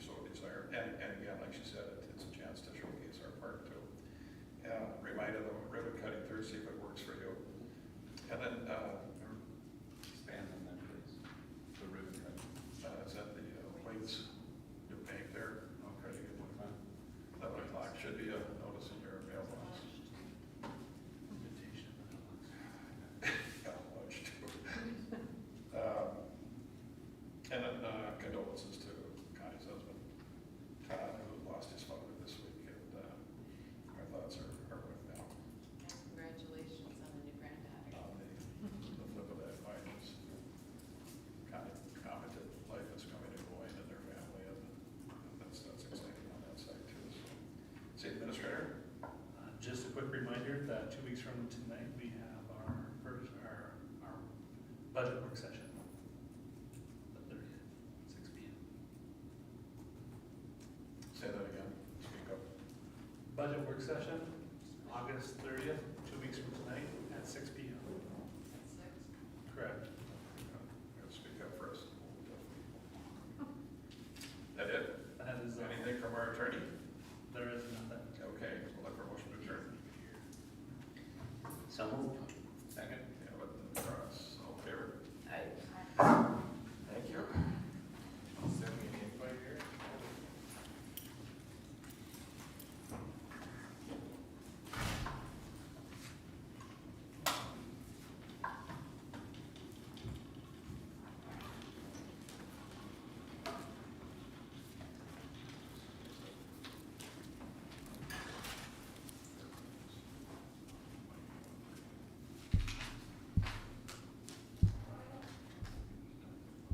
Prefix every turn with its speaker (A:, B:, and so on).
A: night of the ribbon cutting through, see if it works for you. And then, uh, expand on that, please, the ribbon cutting. Uh, it's at the uh, Waits, New Bank there, okay,
B: What time?
A: eleven o'clock, should be a notice in your mailbox.
B: Invitation, but it looks-
A: Got lunch too. Um, And then uh, condolences to Connie's husband, Todd, who lost his father this week, and uh, our thoughts are, are with them.
C: Congratulations on the new granddaughter.
A: on the, the flip of that coin is kind of commented, life is coming to Roy and their family, and that's, that's exciting on that side too. so. City Administrator?
B: Uh, Just a quick reminder that two weeks from tonight, we have our first, our, our budget work session. The thirtieth, six P M.
A: Say that again, speak up.
B: Budget work session, August thirtieth, two weeks from tonight, at six P M.
C: At six.
B: Correct.
A: Uh, Speak up first. That it?
B: That is, uh,
A: Anything from our attorney?
B: there is nothing.
A: Okay, we'll look for a motion to adjourn.
D: So moved.
A: uh,